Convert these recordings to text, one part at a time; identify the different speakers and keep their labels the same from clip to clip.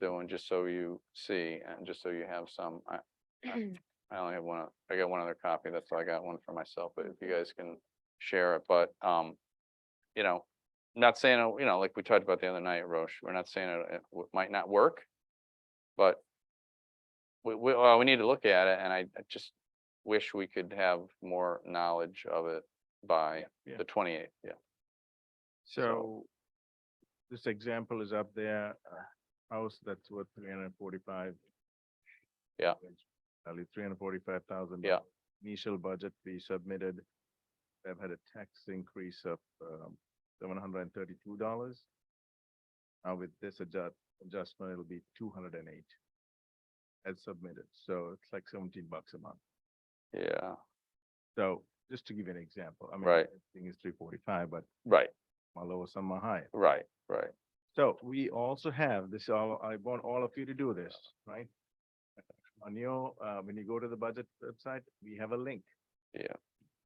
Speaker 1: doing, just so you see, and just so you have some, I, I only have one, o- I got one other copy, that's, all I got one for myself, but if you guys can share it, but, um, you know, not saying, uh, you know, like we talked about the other night, Roche, we're not saying it, it w- might not work, but we, we, well, we need to look at it, and I I just wish we could have more knowledge of it by
Speaker 2: Yeah.
Speaker 1: the twenty-eighth, yeah.
Speaker 2: So this example is up there, a house that's worth three hundred and forty-five.
Speaker 1: Yeah.
Speaker 2: Only three hundred and forty-five thousand.
Speaker 1: Yeah.
Speaker 2: Initial budget we submitted, they've had a tax increase of um seven hundred and thirty-two dollars. Now with this adjust, adjustment, it'll be two hundred and eight. As submitted, so it's like seventeen bucks a month.
Speaker 1: Yeah,
Speaker 2: So just to give you an example, I mean.
Speaker 1: Right.
Speaker 2: Thing is three forty-five, but
Speaker 1: right,
Speaker 2: my lower, some are higher.
Speaker 1: right, right.
Speaker 2: So we also have this, all- I want all of you to do this, right? On your, uh, when you go to the budget website, we have a link.
Speaker 1: Yeah.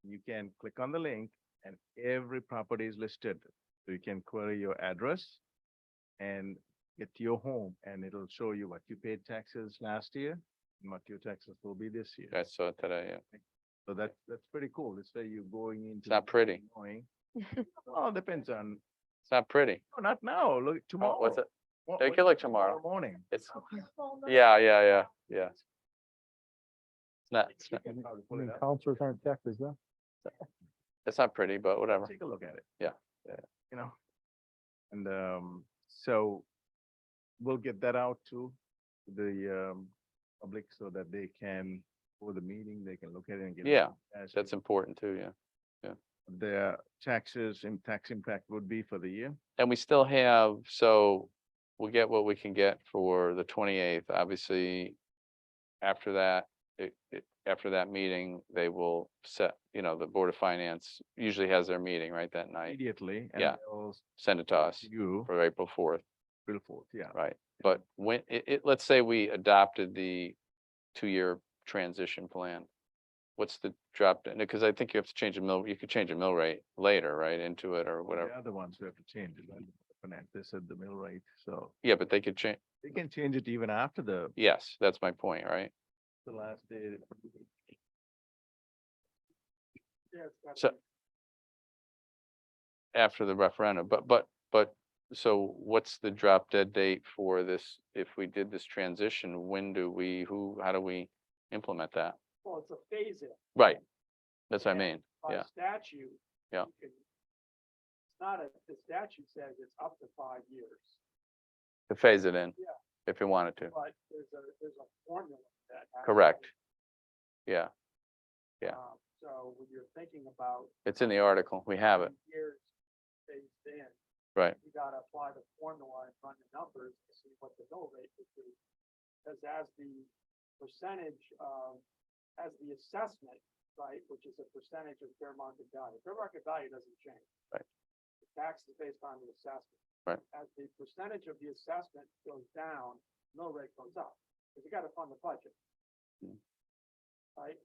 Speaker 2: You can click on the link and every property is listed. So you can query your address and get to your home and it'll show you what you paid taxes last year and what your taxes will be this year.
Speaker 1: I saw it today, yeah.
Speaker 2: So that, that's pretty cool. It's where you're going into. the
Speaker 1: not pretty.
Speaker 2: morning. Well, depends on,
Speaker 1: It's not pretty.
Speaker 2: no, not now, look, tomorrow.
Speaker 1: Oh, What's it?
Speaker 2: What-
Speaker 1: Take
Speaker 2: what-
Speaker 1: it like tomorrow.
Speaker 2: Morning.
Speaker 1: It's, yeah, yeah, yeah, yeah. It's not, it's
Speaker 2: You
Speaker 1: not,
Speaker 2: can probably
Speaker 3: I
Speaker 2: pull it
Speaker 3: mean,
Speaker 2: up.
Speaker 3: counselors aren't taxes, huh?
Speaker 1: it's not pretty, but whatever.
Speaker 2: Take a look at it.
Speaker 1: Yeah,
Speaker 2: Yeah. You know? And, um, so we'll get that out to the, um, public so that they can, for the meeting, they can look at it and get.
Speaker 1: Yeah,
Speaker 2: as to
Speaker 1: That's important too, yeah.
Speaker 2: Their taxes and tax impact would be for the year.
Speaker 1: And we still have, so we'll get what we can get for the twenty-eighth, obviously. After that, it, it, after that meeting, they will set, you know, the Board of Finance usually has their meeting right that night,
Speaker 2: Immediately. and
Speaker 1: Yeah.
Speaker 2: they'll s-
Speaker 1: send it to us
Speaker 2: You,
Speaker 1: for April fourth.
Speaker 2: April fourth, yeah.
Speaker 1: Right, but when, it, it, let's say we adopted the two-year transition plan. What's the drop, because I think you have to change the mill, you could change the mill rate later, right, into it or
Speaker 2: Well,
Speaker 1: whatever.
Speaker 2: The other ones we have to change it, like, finance, they said the mill rate, so
Speaker 1: Yeah, but they could change,
Speaker 2: they can change it even after the,
Speaker 1: yes, that's my point, right?
Speaker 2: the last day.
Speaker 1: So. After the referendum, but, but, but, so what's the drop dead date for this? If we did this transition, when do we, who, how do we implement that?
Speaker 4: Well, it's a phase in
Speaker 1: Right, that's what I
Speaker 4: Yeah.
Speaker 1: mean,
Speaker 4: by
Speaker 1: Yeah.
Speaker 4: statute.
Speaker 1: Yeah.
Speaker 4: you can- It's not a, the statute says it's up to five years,
Speaker 1: to phase it in.
Speaker 4: Yeah.
Speaker 1: If you wanted to,
Speaker 4: but there's a, there's a formula that. has to
Speaker 1: correct,
Speaker 4: be,
Speaker 1: yeah. yeah.
Speaker 4: um, So when you're thinking about.
Speaker 1: It's in the article. We have it.
Speaker 4: three Years phased in.
Speaker 1: Right.
Speaker 4: You gotta apply the formula and run the numbers to see what the mill rate would be. Cause as the percentage of, as the assessment, right, which is a percentage of fair market value, fair market value doesn't change.
Speaker 1: Right.
Speaker 4: The tax is based on the assessment.
Speaker 1: Right.
Speaker 4: As the percentage of the assessment goes down, mill rate goes up, cause you gotta fund the budget.
Speaker 1: Mm.
Speaker 4: Right?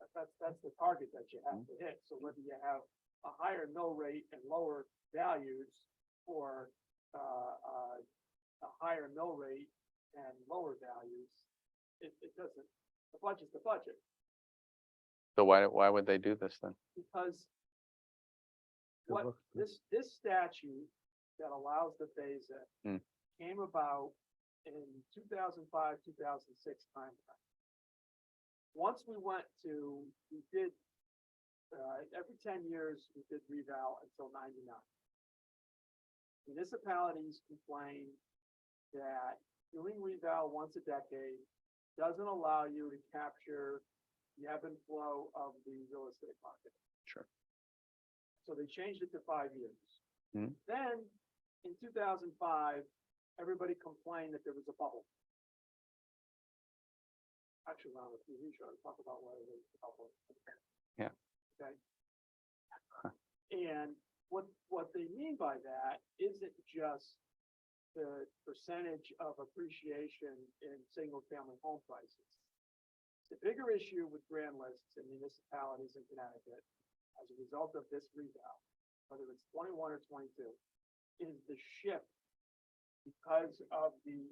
Speaker 4: That- That's, that's the target that you have
Speaker 1: Hmm.
Speaker 4: to hit, so whether you have a higher mill rate and lower values or uh, uh, a higher mill rate and lower values, it, it doesn't, the budget's the budget,
Speaker 1: So why, why would they do this then?
Speaker 4: because what
Speaker 3: luck.
Speaker 4: this, this statute that allows the phase
Speaker 1: Hmm.
Speaker 4: in came about in two thousand five, two thousand six time. frame. Once we went to, we did, uh, every ten years, we did revow until ninety-nine. Municipalities complained that doing revow once a decade doesn't allow you to capture the ebb and flow of the real estate market. So they changed it to five years.
Speaker 1: Hmm.
Speaker 4: Then, in two thousand five, everybody complained that there was a bubble. Actually, we're on the TV show, talk about whether there was a bubble.
Speaker 1: Yeah.
Speaker 4: Okay. And what, what they mean by that isn't just the percentage of appreciation in single-family home prices. The bigger issue with grand lists in municipalities in Connecticut as a result of this revow, whether it's twenty-one or twenty-two, is the shift because of the